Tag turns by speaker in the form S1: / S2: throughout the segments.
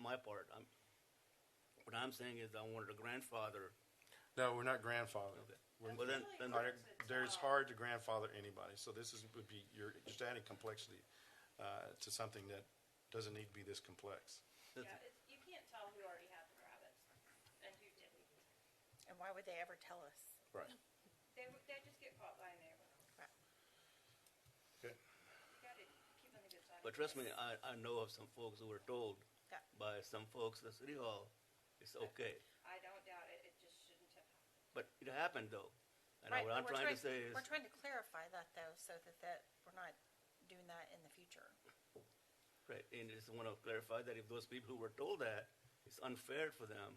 S1: my part. I'm, what I'm saying is I wanted a grandfather.
S2: No, we're not grandfathered.
S1: Okay.
S2: We're-
S1: Well, then, then
S2: Our- There's hard to grandfather anybody, so this is, would be, you're just adding complexity uh, to something that doesn't need to be this complex.
S1: that's-
S3: Yeah, it's, you can't tell who already had the rabbits and who didn't.
S4: And why would they ever tell us?
S2: Right.
S3: They, would- they just get caught by a neighbor.
S2: Okay.
S3: You gotta keep on the good side. of
S1: but trust
S3: things.
S1: me, I, I know of some folks who were told
S4: Yeah.
S1: by some folks at City Hall, it's okay.
S3: I don't doubt it, it just shouldn't have happened.
S1: But it happened though. And
S4: Right,
S1: what
S4: but
S1: I'm
S4: we're
S1: trying to say is,
S4: We're trying to clarify that though, so that, that we're not doing that in the future.
S1: right, and just want to clarify that if those people who were told that, it's unfair for them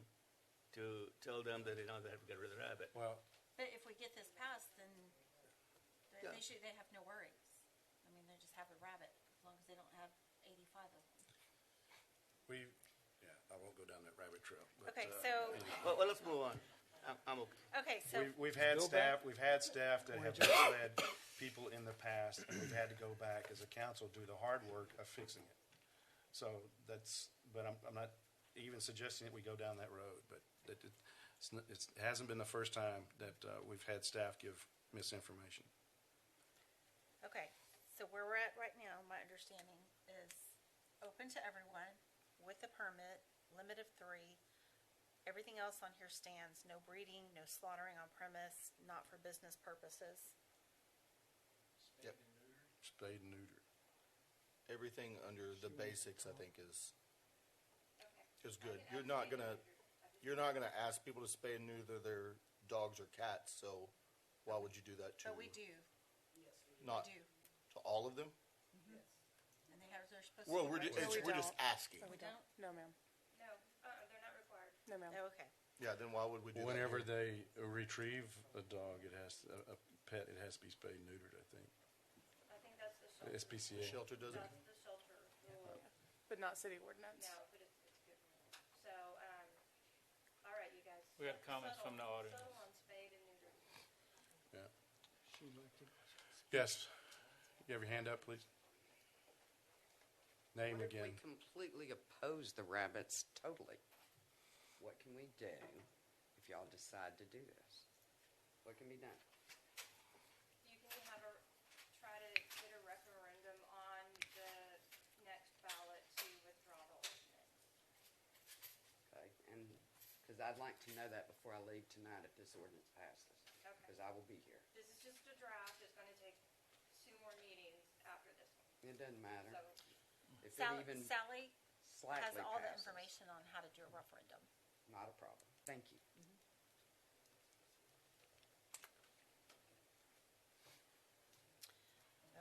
S1: to tell them that they don't have to get rid of the rabbit.
S2: Well,
S5: But if we get this passed, then they-
S1: Yeah.
S5: they should, they have no worries. I mean, they just have a rabbit, as long as they don't have eighty-five of them.
S2: we, yeah, I won't go down that rabbit trail. but,
S4: Okay,
S2: uh,
S4: so,
S1: Well, well, let's move on. I'm, I'm okay.
S4: okay, so,
S2: We've, we've had
S6: Go
S2: staff,
S6: back.
S2: we've had staff that have misled people in the past, and we've had to go back as a council, do the hard work of fixing it. So that's, but I'm, I'm not even suggesting that we go down that road, but that, it- it's, n- it's- it hasn't been the first time that, uh, we've had staff give misinformation.
S4: okay, so where we're at right now, my understanding is open to everyone with a permit, limit of three. Everything else on here stands, no breeding, no slaughtering on premise, not for business purposes.
S7: Yep.
S2: Spade and neuter.
S7: Everything under the basics, I think, is
S3: Okay.
S7: is
S3: I
S7: good.
S3: can
S7: You're not
S3: absolutely
S7: gonna
S3: do that. I just-
S7: you're not gonna ask people to spay and neuter their dogs or cats. So why would you do that to?
S5: But we do, we
S7: Not
S5: do,
S7: to all of them.
S5: and they have, they're supposed to.
S7: Well, we're
S5: be
S7: just,
S5: right.
S4: No, we
S7: it's, we're just
S4: don't.
S7: asking.
S5: We don't,
S8: No, ma'am.
S3: No, uh-uh, they're not required.
S8: No, ma'am.
S4: Oh, Okay,
S7: Yeah. Then why would we do that?
S2: Whenever they retrieve a dog, it has, a, a pet, it has to be spayed and neutered, I think.
S3: I think that's the shelter.
S7: The
S2: SPCA.
S7: shelter doesn't.
S3: That's the shelter rule.
S8: But not city ordinance.
S3: No, but it's, it's good. So, um, all right, you guys.
S6: We have comments from the
S3: Settle-
S6: audience.
S3: Settle on spade and neuter.
S2: Yeah.
S6: She liked it.
S2: Yes. You have your hand up, please? Name
S9: What if
S2: again.
S9: we completely oppose the rabbits totally? What can we do if y'all decide to do this? What can be done?
S3: You can have a, try to get a referendum on the next ballot to withdraw the ordinance.
S9: Okay, and, because I'd like to know that before I leave tonight if this ordinance passes. Because I will be here.
S3: This is just a draft, it's gonna take two more meetings after this one,
S9: It doesn't matter.
S3: so.
S9: If it
S4: Sally,
S9: even
S4: Sally has
S9: slightly
S4: all the
S9: passes,
S4: information on how to do a referendum.
S9: not a problem. Thank you.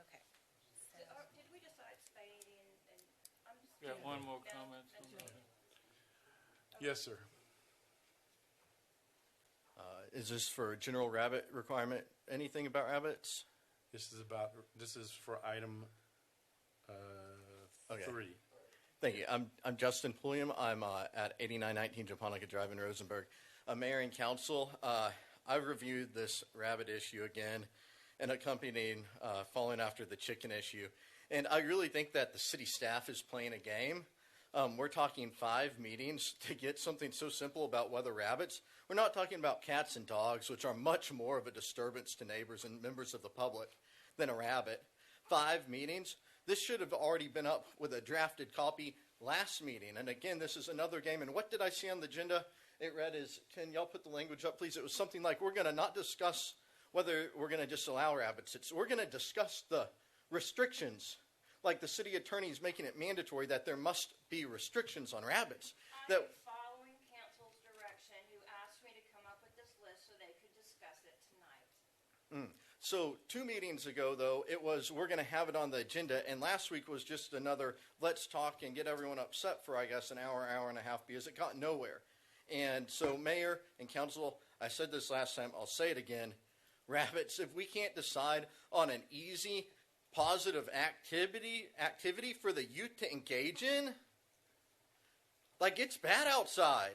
S4: Okay. So-
S3: Did, or- uh, did we decide spade and, and, I'm just.
S6: Got one more
S3: No,
S6: comment.
S3: that's
S6: somebody.
S3: it.
S2: Yes, sir.
S7: Uh, is this for a general rabbit requirement? Anything about rabbits?
S2: This is about, this is for item uh,
S7: Okay.
S2: three.
S7: Thank you. I'm, I'm Justin Pulliam. I'm uh, at 8919 Japonica Drive in Rosenberg. Uh, Mayor and Council, uh, I've reviewed this rabbit issue again and accompanying, uh, following after the chicken issue. And I really think that the city staff is playing a game. Um, we're talking five meetings to get something so simple about whether rabbits. We're not talking about cats and dogs, which are much more of a disturbance to neighbors and members of the public than a rabbit five meetings. This should have already been up with a drafted copy last meeting. And again, this is another game. And what did I see on the agenda? It read is, can y'all put the language up, please? It was something like, we're going to not discuss whether we're going to disallow rabbits. It's, we're going to discuss the restrictions. Like the city attorney is making it mandatory that there must be restrictions on rabbits. That
S3: I'm following council's direction, who asked me to come up with this list so they could discuss it tonight.
S7: So two meetings ago, though, it was we're going to have it on the agenda, and last week was just another let's talk and get everyone upset for I guess an hour, hour and a half because it got nowhere. And so, mayor and council, I said this last time, I'll say it again, rabbits. If we can't decide on an easy, positive activity activity for the youth to engage in, like it's bad outside.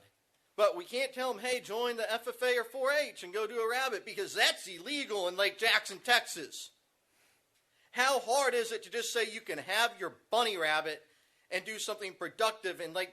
S7: But we can't tell them, hey, join the FFA or 4 H and go do a rabbit because that's illegal in Lake Jackson, Texas. How hard is it to just say you can have your bunny rabbit and do something productive in Lake